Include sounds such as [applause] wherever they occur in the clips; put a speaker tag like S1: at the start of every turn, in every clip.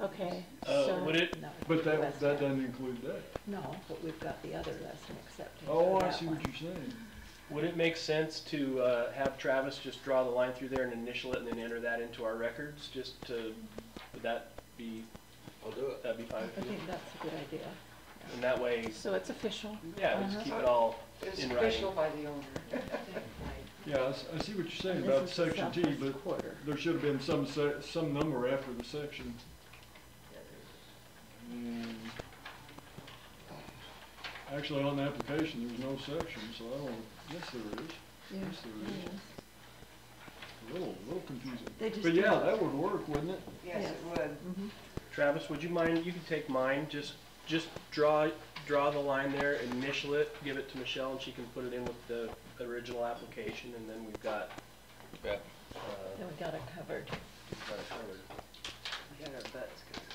S1: Okay,
S2: Uh,
S1: so,
S2: would it,
S3: No.
S4: But that,
S3: West
S4: that
S3: End.
S4: doesn't include that.
S3: No, but we've got the other lesson accepted.
S4: Oh, I see what you're saying.
S2: would it make sense to, uh, have Travis just draw the line through there and initial it and then enter that into our records, just to, would that be,
S5: I'll do it.
S2: that'd be fine? with
S3: I
S2: you?
S3: think that's a good idea.
S2: And that way,
S1: so it's official.
S2: yeah, we just keep it all
S6: It's
S2: in
S6: official
S2: writing.
S6: by the owner.
S4: Yeah, I s- I see what you're saying
S3: And
S4: about
S3: this is the
S4: section T,
S3: southwest
S4: but
S3: Quarter.
S4: there should have been some se- some number after the section. And Actually, on the application, there's no section, so I don't, yes, there is. Yes, there is. A little, a little confusing.
S3: They just
S4: But yeah,
S3: don't-
S4: that would work, wouldn't it?
S6: Yes, it would.
S3: Mhm.
S2: Travis, would you mind, you can take mine, just, just draw, draw the line there, initial it, give it to Michelle, and she can put it in with the original application, and then we've got,
S5: Yeah.
S2: uh,
S3: Then we got it covered.
S2: we've got it covered.
S6: We had our butts covered.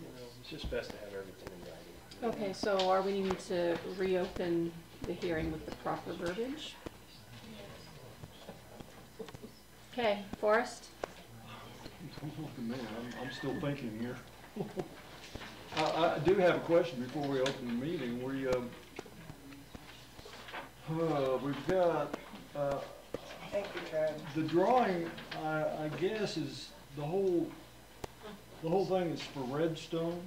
S2: You know, It's just best to have everything in writing.
S1: Okay, so are we needing to reopen the hearing with the proper verbiage? Okay, Forrest?
S4: Don't look at me, I'm, I'm still thinking here. I, I do have a question before we open the meeting, we, um, uh, we've got, uh,
S6: Thank you, Travis.
S4: the drawing, I, I guess, is the whole, the whole thing is for redstone.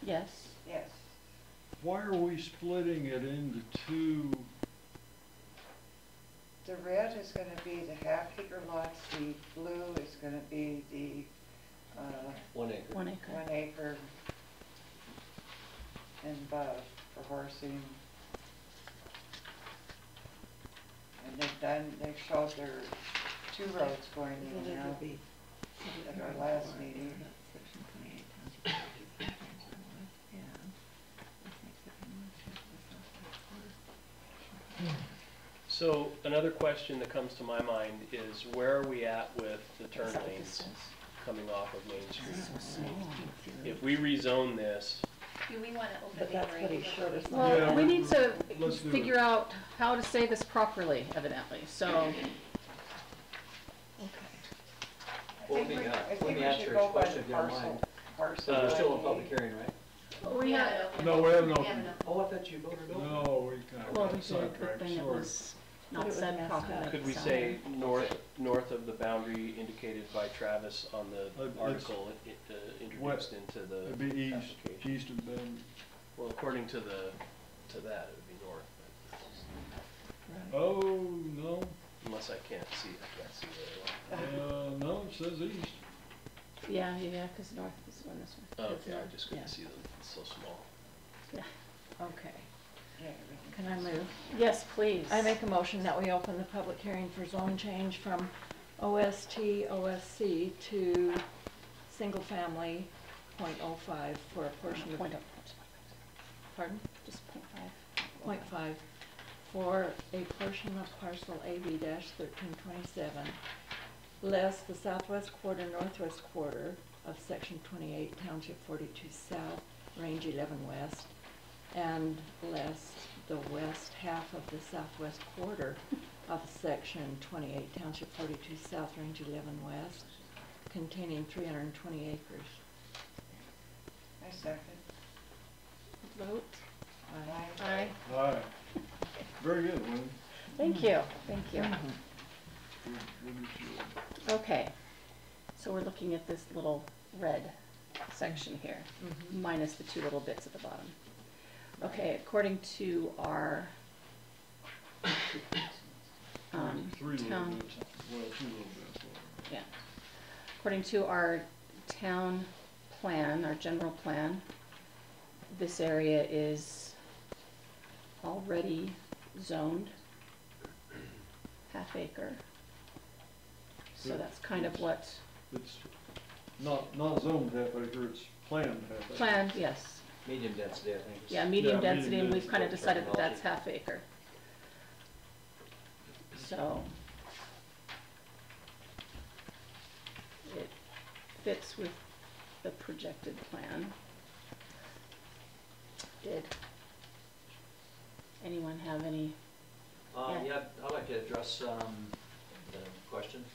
S1: Yes.
S6: Yes.
S4: Why are we splitting it into two?
S6: The red is gonna be the half acre lots, the blue is gonna be the, uh,
S5: One acre.
S1: One acre.
S6: one acre and above for horsing. And they've done, they've showed their two roads going in now. At our last meeting. [coughs]
S2: So another question that comes to my mind is where are we at with the turn
S1: Sight
S2: lanes
S1: distance.
S2: coming off of Main Street? If we rezone this,
S7: Do we want to open the
S3: But that's what he
S7: hearing?
S3: showed us.
S4: Yeah,
S1: Well, we
S4: we-
S1: need to
S4: let's do it.
S1: figure out how to say this properly evidently, so,
S6: I
S5: Well,
S6: think
S5: let me,
S6: we-
S5: uh,
S6: I
S5: let
S6: think
S5: me
S6: we
S5: answer
S6: should
S5: his
S6: go by
S5: question
S6: the
S5: if you don't
S6: parcel,
S5: mind.
S6: parcel.
S2: Uh,
S5: We're still in
S6: ID.
S5: public hearing, right?
S1: we
S7: haven't
S1: have,
S7: opened
S4: No,
S7: it.
S4: we haven't opened
S7: We
S4: it.
S7: haven't opened
S5: Oh, I thought you voted over.
S4: No, we kind of
S1: well,
S4: got
S1: we did the
S4: sidetracked,
S1: thing that
S4: sorry.
S1: was
S3: But it
S1: not
S3: was
S1: said
S3: messed up.
S1: properly.
S2: could we
S1: so-
S2: say north, north of the boundary indicated by Travis on the
S4: Uh, it's-
S2: article it- it, uh, introduced into the
S4: It'd be east,
S2: application?
S4: east of Bend.
S2: Well, according to the, to that, it would be north, but
S4: Oh, no,
S2: unless I can't see, I can't see very well.
S4: uh, [laughs] no, it says east.
S1: Yeah, yeah, because north is one, this one.
S2: Oh,
S1: It's
S2: Okay, I
S1: north.
S2: just couldn't
S1: Yeah.
S2: see them, it's so small.
S3: Okay.
S6: Yeah, everything.
S3: Can I move?
S1: Yes, please.
S3: I make a motion that we open the public hearing for zone change from OST, OSC to single family .05 for a portion of,
S1: Point up,
S3: pardon,
S1: just point five.
S3: .5 for a portion of parcel AB thirteen twenty-seven, less the southwest quarter, northwest quarter of section twenty-eight, township forty-two south, range eleven west, and less the west half of the southwest quarter of section twenty-eight, township forty-two south, range eleven west, containing three hundred and twenty acres.
S6: I second.
S1: Vote.
S6: Aye.
S1: Aye.
S4: All right, very good, Lynn.
S1: Thank you, thank you.
S4: We'll- we'll get you.
S1: Okay, so we're looking at this little red section here, minus the two little bits at the bottom. Okay, according to our, um,
S4: Three little
S1: town,
S4: bits, well, two little bits. whatever.
S1: yeah. According to our town plan, our general plan, this area is already zoned half acre. So that's kind of what,
S4: It's not, not zoned half acre, it's planned half acre.
S1: planned, yes,
S5: Medium density, I think. is-
S1: Yeah, medium
S4: medium
S1: density, and we've
S4: density
S1: kind of
S5: is
S1: decided that that's
S5: terminology.
S1: half acre. So. It fits with the projected plan. Did anyone have any,
S5: Uh,
S1: Yeah.
S5: yeah, I'd like to address, um, the question